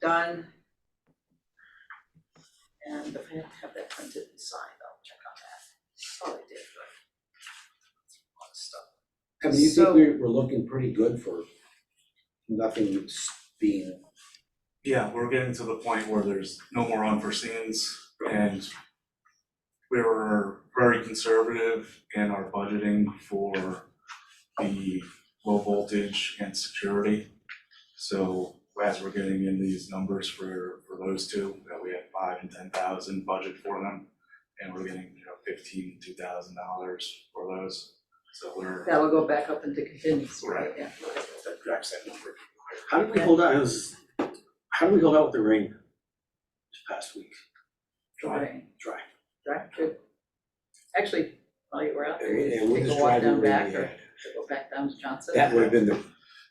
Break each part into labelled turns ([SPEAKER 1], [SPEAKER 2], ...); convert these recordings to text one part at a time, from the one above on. [SPEAKER 1] done. And if I don't have that printed and signed, I'll check on that. Oh, I did, but. A lot of stuff.
[SPEAKER 2] I mean, you
[SPEAKER 1] So-
[SPEAKER 2] think we're, we're looking pretty good for nothing s- being,
[SPEAKER 3] Yeah, we're getting to the point where there's no more unforeseens and we were very conservative in our budgeting for the low voltage and security. So as we're getting in these numbers for for those two, that we had five and ten thousand budget for them. And we're getting, you know, fifteen, two thousand dollars for those, so we're.
[SPEAKER 1] That'll go back up into contingency, right,
[SPEAKER 3] Right.
[SPEAKER 1] yeah.
[SPEAKER 3] That drives that number.
[SPEAKER 4] How did we hold out, it was, how did we hold out with the rain this past week?
[SPEAKER 3] Drive.
[SPEAKER 1] Right.
[SPEAKER 4] Dry.
[SPEAKER 1] Right, good. Actually, while you were out there,
[SPEAKER 2] Yeah,
[SPEAKER 1] you
[SPEAKER 2] we're
[SPEAKER 1] could take
[SPEAKER 2] just
[SPEAKER 1] a walk
[SPEAKER 2] driving
[SPEAKER 1] down
[SPEAKER 2] really
[SPEAKER 1] back or
[SPEAKER 2] bad.
[SPEAKER 1] go back down to Johnson.
[SPEAKER 2] that would have been the,
[SPEAKER 3] I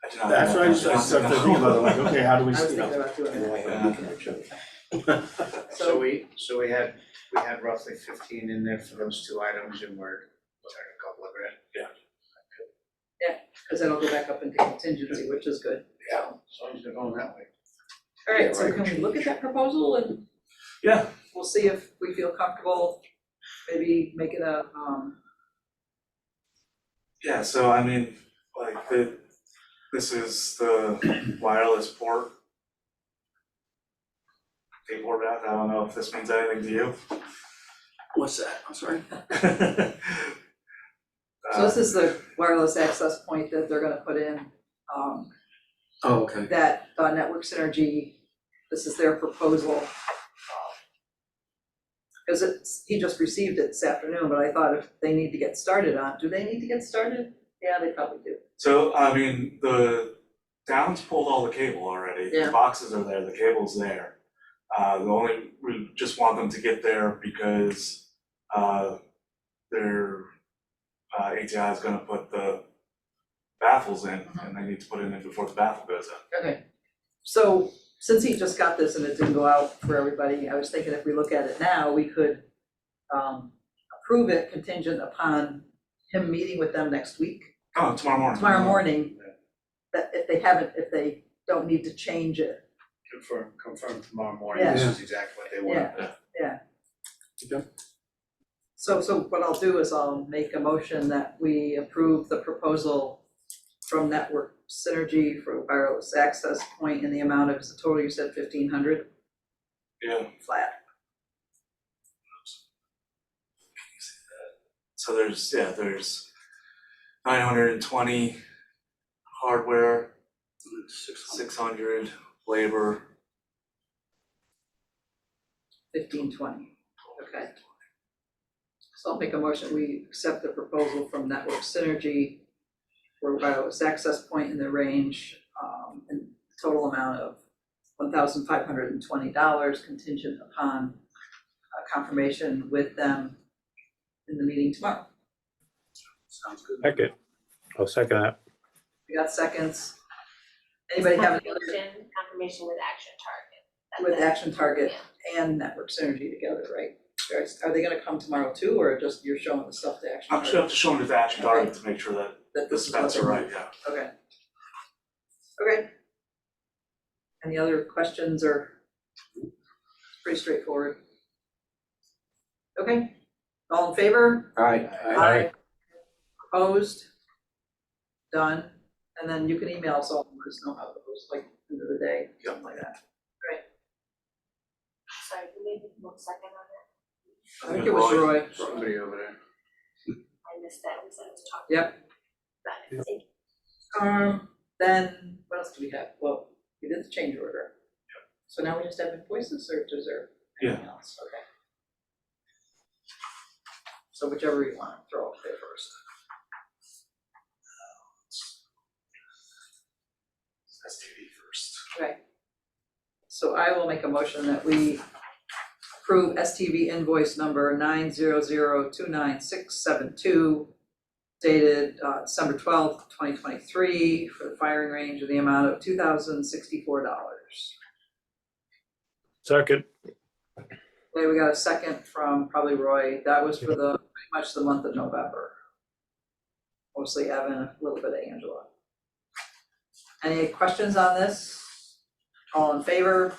[SPEAKER 3] do not have
[SPEAKER 4] That's
[SPEAKER 3] that
[SPEAKER 4] what I just, I
[SPEAKER 3] budget.
[SPEAKER 4] started thinking about, it, like, okay, how do
[SPEAKER 1] I
[SPEAKER 4] we,
[SPEAKER 1] was
[SPEAKER 4] you
[SPEAKER 1] thinking
[SPEAKER 4] know,
[SPEAKER 1] about doing that.
[SPEAKER 2] and we can reach out.
[SPEAKER 5] So we, so we had, we had roughly fifteen in there for those two items and we're, we a couple of grand.
[SPEAKER 1] Cause that'll go back up into contingency, which is good.
[SPEAKER 5] Yeah. As long as they're going that way.
[SPEAKER 1] All
[SPEAKER 5] Yeah,
[SPEAKER 1] right, so
[SPEAKER 5] right.
[SPEAKER 1] can we look at that proposal and
[SPEAKER 3] Yeah,
[SPEAKER 1] we'll see if we feel comfortable, maybe making a, um,
[SPEAKER 3] Yeah, so I mean, like the, this is the wireless port. They port out, I don't know if this means anything to you.
[SPEAKER 4] what's that, I'm sorry?
[SPEAKER 5] Uh,
[SPEAKER 1] so this is the wireless access point that they're gonna put in. Um,
[SPEAKER 4] Oh, okay.
[SPEAKER 1] that, uh, Network Synergy, this is their proposal. Um, Cause it's, he just received it this afternoon, but I thought if they need to get started on, do they need to get started? Yeah, they probably do.
[SPEAKER 3] So, I mean, the Downs pulled all the cable already,
[SPEAKER 1] Yeah.
[SPEAKER 3] the boxes are there, the cable's there. Uh, the only, we just want them to get there because, uh, their, uh, ATI is gonna put the baffles in,
[SPEAKER 1] Mm-hmm.
[SPEAKER 3] and they need to put it in before the baffle goes in.
[SPEAKER 1] Okay. So since he just got this and it didn't go out for everybody, I was thinking if we look at it now, we could um approve it contingent upon him meeting with them next week,
[SPEAKER 3] Oh, tomorrow morning.
[SPEAKER 1] tomorrow morning. That if they haven't, if they don't need to change it,
[SPEAKER 5] Confirm, confirm tomorrow morning, this is exactly what they want.
[SPEAKER 1] Yeah. So, so what I'll do is I'll make a motion that we approve the proposal from Network Synergy for wireless access point in the amount of, is the total you said fifteen hundred
[SPEAKER 3] Yeah,
[SPEAKER 1] flat?
[SPEAKER 3] so there's, yeah, there's nine hundred and twenty hardware,
[SPEAKER 4] Six hundred.
[SPEAKER 3] six hundred labor.
[SPEAKER 1] Fifteen twenty, okay. So I'll make a motion, we accept the proposal from Network Synergy for wireless access point in the range, um, and total amount of one thousand five hundred and twenty dollars contingent upon uh, confirmation with them in the meeting tomorrow.
[SPEAKER 4] Sounds good.
[SPEAKER 6] Second. I'll second that.
[SPEAKER 1] We got seconds. Anybody have any other
[SPEAKER 7] Confirmation, confirmation with action target. That's
[SPEAKER 1] with
[SPEAKER 7] it.
[SPEAKER 1] Action Target and Network Synergy together, right? Guys, Are they gonna come tomorrow too, or just you're showing the stuff to Action
[SPEAKER 3] I'm
[SPEAKER 1] Target?
[SPEAKER 3] sure, I'm just showing it to Action Target to make sure that
[SPEAKER 1] That
[SPEAKER 3] the
[SPEAKER 1] this is what
[SPEAKER 3] specs
[SPEAKER 1] they
[SPEAKER 3] are
[SPEAKER 1] want.
[SPEAKER 3] right, yeah.
[SPEAKER 1] Okay. Okay. Any other questions or? It's pretty straightforward. Okay, all in favor?
[SPEAKER 2] All right,
[SPEAKER 6] Aye.
[SPEAKER 1] Opposed? Done, and then you can email us all, and let us know how it goes, like, end of the day, something like that.
[SPEAKER 7] Sorry, you made one second on that.
[SPEAKER 1] I think it was Roy.
[SPEAKER 5] Somebody over there.
[SPEAKER 7] I missed that because I was talking.
[SPEAKER 1] Yep.
[SPEAKER 7] Got it. Thank you.
[SPEAKER 1] Um, then, what else do we have? Well, we did the change order. So now we just have invoices or is there anything else? Okay. So whichever you want, throw up there first.
[SPEAKER 3] That's TV first.
[SPEAKER 1] Right. So I will make a motion that we approve STV invoice number nine zero zero two nine six seven two dated uh December twelfth, twenty twenty-three for the firing range of the amount of two thousand sixty-four dollars.
[SPEAKER 6] Second.
[SPEAKER 1] Okay, we got a second from probably Roy. That was for the, pretty much the month of November. Mostly Evan, a little bit of Angela. Any questions on this? All in favor?